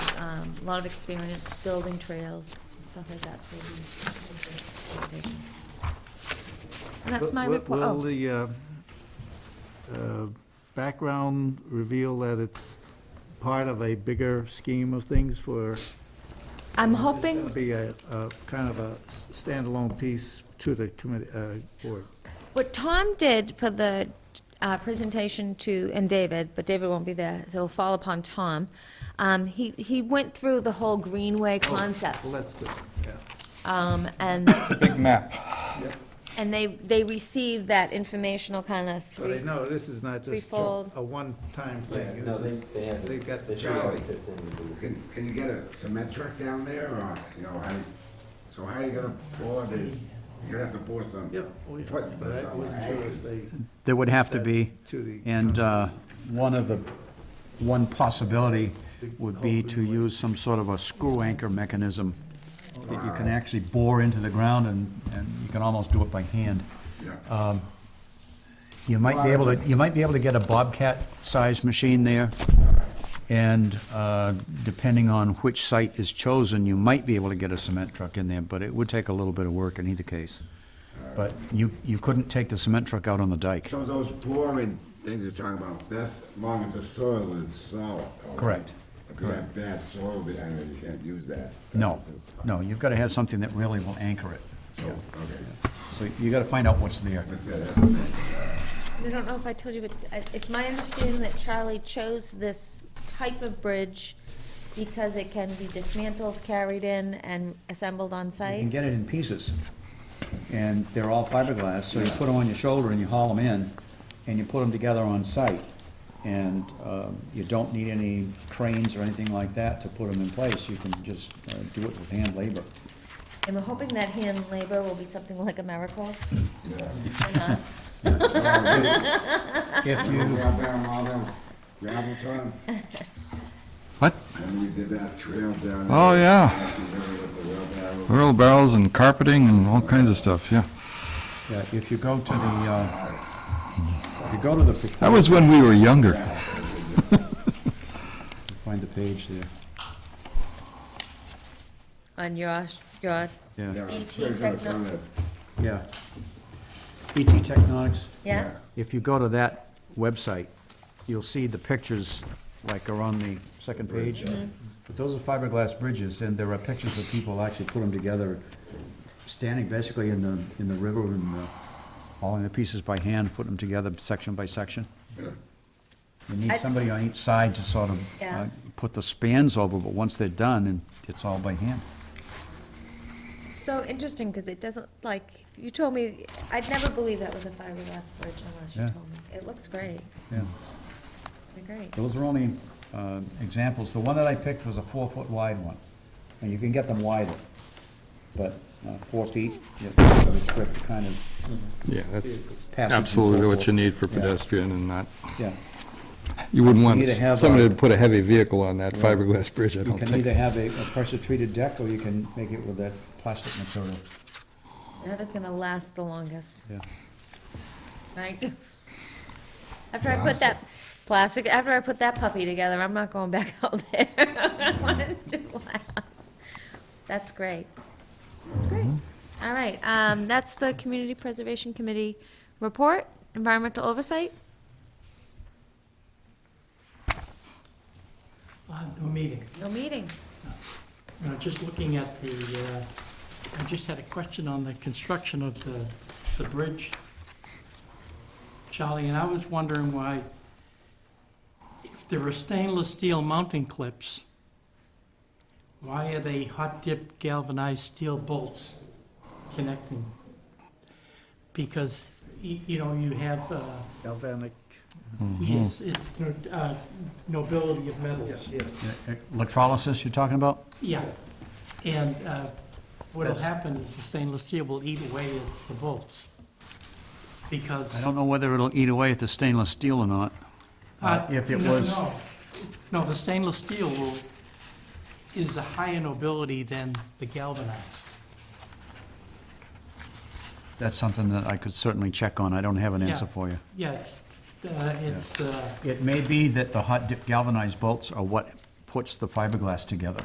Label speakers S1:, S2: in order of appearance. S1: um, a lot of experience building trails and stuff like that, so it'll be. And that's my
S2: Will-
S1: report,
S2: Will
S1: oh,
S2: the uh, uh, background reveal that it's part of a bigger scheme of things for?
S1: I'm
S2: It'll
S1: hoping,
S2: Be a, a kind of a s- standalone piece to the committee, uh, board.
S1: what Tom did for the uh, presentation to, and David, but David won't be there, so it'll fall upon Tom. Um, He, he went through the whole greenway concept,
S2: Oh, Well, that's good, yeah.
S1: um, and,
S3: Big map.
S1: and they, they received that informational kind of
S2: But I
S1: three,
S2: know this is not just
S1: Threefold.
S2: a one-time thing. This
S4: No, they,
S2: is-
S4: they have.
S2: They've got
S4: they
S2: the
S4: show how it
S2: job.
S4: fits in with the-
S5: Can, can you get a cement truck down there, or, you know, how, you- so how you gonna pour this? You're gonna have to pour some.
S2: Yeah, we-
S5: Put
S2: but I wasn't sure if they,
S3: There would have to be,
S2: to the-
S3: and uh, one of the, one possibility would be to use some sort of a screw anchor mechanism that you can actually bore into the ground and, and you can almost do it by hand.
S5: Yeah.
S3: You might be able to, you might be able to get a Bobcat-sized machine there, and uh, depending on which site is chosen, you might be able to get a cement truck in there, but it would take a little bit of work in either case. But you, you couldn't take the cement truck out on the dike.
S5: So those pouring things you're talking about, that's as long as the soil is solid. all right?
S3: Correct.
S5: If you have bad soil behind it, you can't use that.
S3: No, no, you've got to have something that really will anchor it. Yeah.
S5: Okay,
S3: So you got to find out what's there.
S5: that's it.
S1: I don't know if I told you, but I- it's my understanding that Charlie chose this type of bridge because it can be dismantled, carried in, and assembled on
S3: You can
S1: site.
S3: get it in pieces, and they're all fiberglass, so you put them on your shoulder and you haul them in, and you put them together on site. And um, you don't need any cranes or anything like that to put them in place, you can just uh, do it with hand labor.
S1: And we're hoping that hand labor will be something like a miracle. And us.
S3: If
S5: We
S3: you,
S5: got down all them gravel time,
S6: What?
S5: and we did that trail down.
S6: Oh,
S5: there,
S6: yeah.
S5: back to the river with the wheelbarrow.
S6: Wheel barrels and carpeting and all kinds of stuff, yeah.
S3: yeah, if you go to the, uh, if you go to the.
S6: That was when we were younger.
S3: Find the page there,
S1: On your, your,
S3: yeah,
S5: Yeah, it's
S1: ET
S5: pretty good, it's on
S1: techno-
S5: the-
S3: yeah. E ET Technonics.
S1: yeah?
S3: If you go to that website, you'll see the pictures, like are on the second page. But those are fiberglass bridges, and there are pictures of people actually put them together, standing basically in the, in the river and uh, hauling the pieces by hand, putting them together section by section. You
S1: I-
S3: need somebody on each side to sort of
S1: Yeah.
S3: uh, put the spans over, but once they're done, and it's all by hand.
S1: So interesting, because it doesn't, like, you told me, I'd never believe that was a fiberglass bridge unless you
S3: Yeah.
S1: told me. It looks great,
S3: Yeah.
S1: They're great.
S3: Those are only uh, examples. The one that I picked was a four-foot wide one, and you can get them wider, but uh, four feet, you have to restrict the kind of
S6: Yeah, that's
S3: passage and so
S6: absolutely what
S3: forth.
S6: you need for
S3: Yeah.
S6: pedestrian and not,
S3: Yeah.
S6: you wouldn't want
S3: need to have
S6: somebody
S3: a-
S6: to put a heavy vehicle on that fiberglass bridge, I
S3: You
S6: don't
S3: can either
S6: think.
S3: have a a pressure-treated deck, or you can make it with that plastic material.
S1: That is gonna last the longest.
S3: Yeah.
S1: Right? After I put that plastic, after I put that puppy together, I'm not going back out there. I want it to last. That's great. That's great. All right, um, that's the Community Preservation Committee report, environmental oversight.
S7: Uh, No meeting.
S1: No meeting.
S7: No, just looking at the, uh, I just had a question on the construction of the, the bridge, Charlie, and I was wondering why, if there are stainless steel mounting clips, why are they hot dip galvanized steel bolts connecting? Because, y- you know, you have, uh,
S2: Galvanic,
S7: yes, it's the uh, nobility of metals.
S2: yes.
S3: Electrolysis you're talking about?
S7: Yeah, and uh, what'll
S3: That's-
S7: happen is the stainless steel will eat away at the bolts, because...
S3: I don't know whether it'll eat away at the stainless steel or not.
S7: Uh,
S3: If it
S7: no,
S3: was,
S7: no. No, the stainless steel will, is a higher nobility than the galvanized.
S3: that's something that I could certainly check on. I don't have an
S7: Yeah.
S3: answer for you.
S7: Yeah, it's, uh, it's, uh,
S3: It may be that the hot dip galvanized bolts are what puts the fiberglass together.